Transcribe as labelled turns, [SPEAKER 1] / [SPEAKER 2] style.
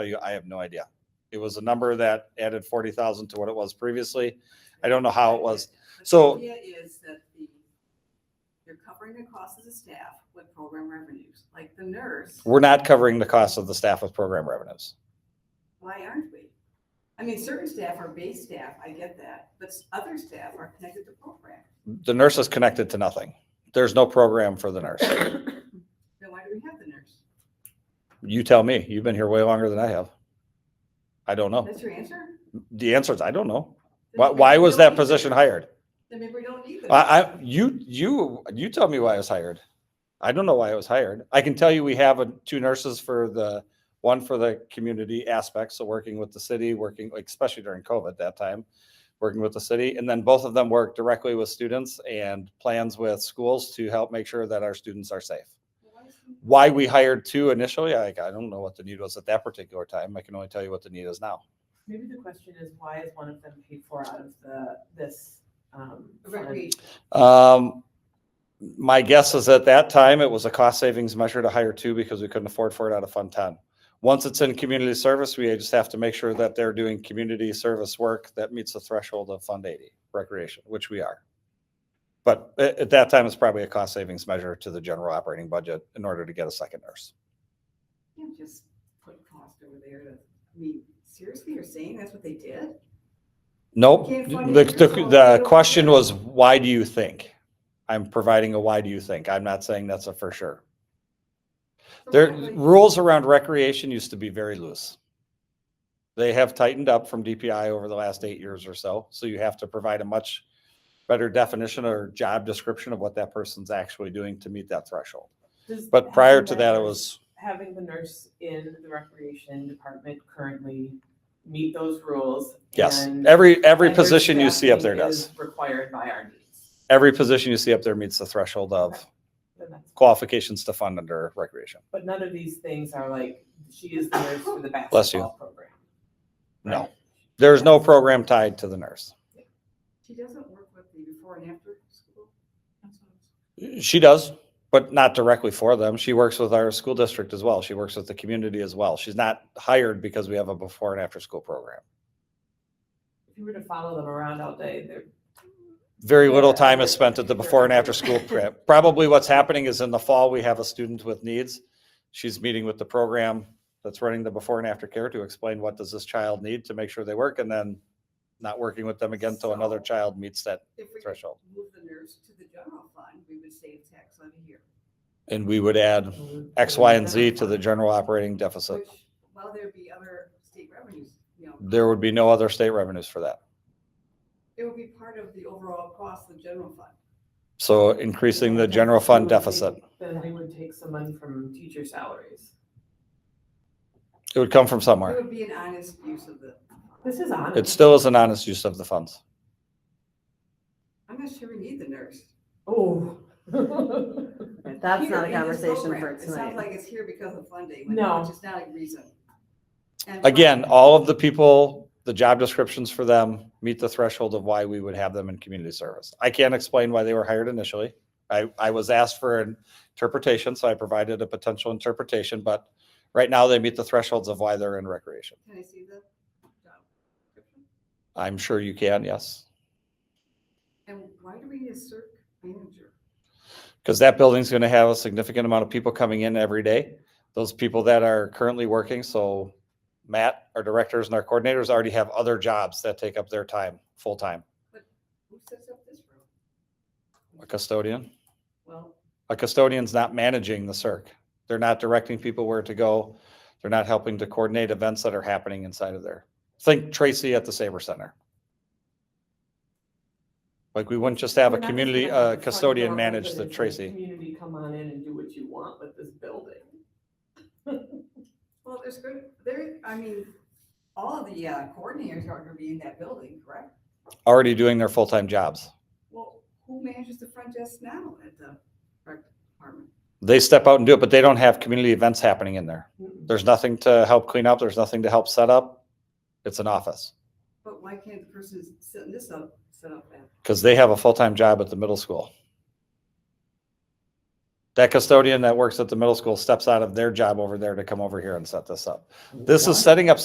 [SPEAKER 1] tell you, I have no idea. It was a number that added forty thousand to what it was previously. I don't know how it was.
[SPEAKER 2] But the
[SPEAKER 1] So-
[SPEAKER 2] idea is that the, you're covering the cost of the staff with program revenues, like the nurse,
[SPEAKER 1] We're not covering the cost of the staff with program revenues.
[SPEAKER 2] why aren't we? I mean, certain staff are base staff, I get that, but s- other staff are connected to program.
[SPEAKER 1] The nurse is connected to nothing. There's no program for the nurse.
[SPEAKER 2] Then why do we have the nurse?
[SPEAKER 1] You tell me. You've been here way longer than I have. I don't know.
[SPEAKER 2] That's your answer?
[SPEAKER 1] The answer is I don't know.
[SPEAKER 2] Then
[SPEAKER 1] Oh. Why,
[SPEAKER 2] maybe
[SPEAKER 1] why
[SPEAKER 2] we
[SPEAKER 1] was
[SPEAKER 2] don't
[SPEAKER 1] that
[SPEAKER 2] need the
[SPEAKER 1] position
[SPEAKER 2] nurse.
[SPEAKER 1] hired?
[SPEAKER 2] Then maybe we don't need the.
[SPEAKER 1] I,
[SPEAKER 2] nurse.
[SPEAKER 1] I, you, you, you tell me why I was hired. I don't know why I was hired. I can tell you we have a, two nurses for the, one for the community aspects, so working with the city, working, like, especially during COVID that time, working with the city, and then both of them work directly with students and plans with schools to help make sure that our students are safe.
[SPEAKER 2] Why is the-
[SPEAKER 1] Why we hired two initially, I, I don't know what the need was at that particular time. I can only tell you what the need is now.
[SPEAKER 3] Maybe the question is, why is one of them paid for out of the, this? um, fund?
[SPEAKER 2] Recreation.
[SPEAKER 1] Um, my guess is at that time, it was a cost savings measure to hire two because we couldn't afford for it out of Fund Ten. Once it's in community service, we just have to make sure that they're doing community service work that meets the threshold of Fund Eighty Recreation, which we are. But at, at that time, it's probably a cost savings measure to the general operating budget in order to get a second nurse.
[SPEAKER 2] You can't just put cost over there to, I mean, seriously, you're saying that's what they did?
[SPEAKER 1] Nope,
[SPEAKER 2] Can't fund
[SPEAKER 1] the,
[SPEAKER 2] it
[SPEAKER 1] the,
[SPEAKER 2] yourself,
[SPEAKER 1] the
[SPEAKER 2] you
[SPEAKER 1] question
[SPEAKER 2] don't-
[SPEAKER 1] was, why do you think? I'm providing a why do you think? I'm not saying that's a for sure.
[SPEAKER 2] So
[SPEAKER 1] Their
[SPEAKER 2] why would-
[SPEAKER 1] rules around recreation used to be very loose. They have tightened up from DPI over the last eight years or so, so you have to provide a much better definition or job description of what that person's actually doing to meet that threshold.
[SPEAKER 3] Does
[SPEAKER 1] But prior
[SPEAKER 3] having
[SPEAKER 1] to that, it
[SPEAKER 3] nurse-
[SPEAKER 1] was,
[SPEAKER 3] Having the nurse in the recreation department currently meet those rules.
[SPEAKER 1] yes,
[SPEAKER 3] and-
[SPEAKER 1] every, every
[SPEAKER 3] and their
[SPEAKER 1] position you see up there
[SPEAKER 3] staffing is
[SPEAKER 1] does.
[SPEAKER 3] Required by our needs.
[SPEAKER 1] Every position you see up there meets the threshold of
[SPEAKER 3] Then that's-
[SPEAKER 1] qualifications to fund under recreation.
[SPEAKER 3] But none of these things are like, she is the nurse for the
[SPEAKER 1] Bless you.
[SPEAKER 3] basketball program.
[SPEAKER 1] No.
[SPEAKER 3] right?
[SPEAKER 1] There's no program tied to the nurse.
[SPEAKER 2] She doesn't work with the before and after school? That's what I was-
[SPEAKER 1] She does, but not directly for them. She works with our school district as well. She works with the community as well. She's not hired because we have a before and after school program.
[SPEAKER 3] If you were to follow them around all day, they're
[SPEAKER 1] Very little time is spent at the before and after school prep. Probably what's happening is in the fall, we have a student with needs. She's meeting with the program that's running the before and after care to explain what does this child need to make sure they work and then not working with them again till another
[SPEAKER 2] So-
[SPEAKER 1] child meets that
[SPEAKER 2] If we could
[SPEAKER 1] threshold.
[SPEAKER 2] move the nurse to the general fund, we would save tax levy here.
[SPEAKER 1] And we would add X, Y, and Z to the general operating deficit.
[SPEAKER 2] Which, while there'd be other state revenues, you know,
[SPEAKER 1] There would be no other state revenues for that.
[SPEAKER 2] it would be part of the overall cost of the general fund.
[SPEAKER 1] So increasing the general fund
[SPEAKER 3] Then we would
[SPEAKER 1] deficit.
[SPEAKER 3] take- Then we would take some money from teacher salaries.
[SPEAKER 1] It would come from
[SPEAKER 2] It
[SPEAKER 1] somewhere.
[SPEAKER 2] would be an honest use of the,
[SPEAKER 3] This is honest.
[SPEAKER 1] It still is an honest use of the funds.
[SPEAKER 2] I'm not sure we need the nurse.
[SPEAKER 3] Oh.
[SPEAKER 4] That's
[SPEAKER 2] Here
[SPEAKER 4] not a
[SPEAKER 2] in this
[SPEAKER 4] conversation for
[SPEAKER 2] program, It sounds
[SPEAKER 4] tonight.
[SPEAKER 2] like it's here because of funding, which
[SPEAKER 3] No.
[SPEAKER 2] which is not a reason. And
[SPEAKER 1] Again, all of the people, the job descriptions for them meet the threshold of why we would have them in community service. I can't explain why they were hired initially. I, I was asked for an interpretation, so I provided a potential interpretation, but right now they meet the thresholds of why they're in recreation.
[SPEAKER 2] Can I see the job description?
[SPEAKER 1] I'm sure you can, yes,
[SPEAKER 2] And why do we need a cert manager?
[SPEAKER 1] because that building's going to have a significant amount of people coming in every day. Those people that are currently working, so Matt, our directors and our coordinators already have other jobs that take up their time, full-time.
[SPEAKER 2] Who sets up this room?
[SPEAKER 1] A custodian.
[SPEAKER 2] Well,
[SPEAKER 1] A custodian's not managing the circ. They're not directing people where to go. They're not helping to coordinate events that are happening inside of there. Think Tracy at the Saber Center. Like, we wouldn't just have a
[SPEAKER 3] We're not just
[SPEAKER 1] community,
[SPEAKER 3] gonna have
[SPEAKER 1] uh,
[SPEAKER 3] the front
[SPEAKER 1] custodian
[SPEAKER 3] door
[SPEAKER 1] manage
[SPEAKER 3] open
[SPEAKER 1] the
[SPEAKER 3] and say,
[SPEAKER 1] Tracy.
[SPEAKER 3] Community, come on in and do what you want with this building.
[SPEAKER 2] well, there's good, there, I mean, all of the uh, coordinators are gonna be in that building, correct?
[SPEAKER 1] Already doing their full-time jobs.
[SPEAKER 2] Well, who manages the front desk now at the rec department?
[SPEAKER 1] They step out and do it, but they don't have community events happening in there.
[SPEAKER 3] Mm-mm.
[SPEAKER 1] There's nothing to help clean up. There's nothing to help set up. It's an office
[SPEAKER 2] But why can't the person who's setting this up, set up that?
[SPEAKER 1] because they have a full-time job at the middle school. That custodian that works at the middle school steps out of their job over there to come over here and set this up. This is setting up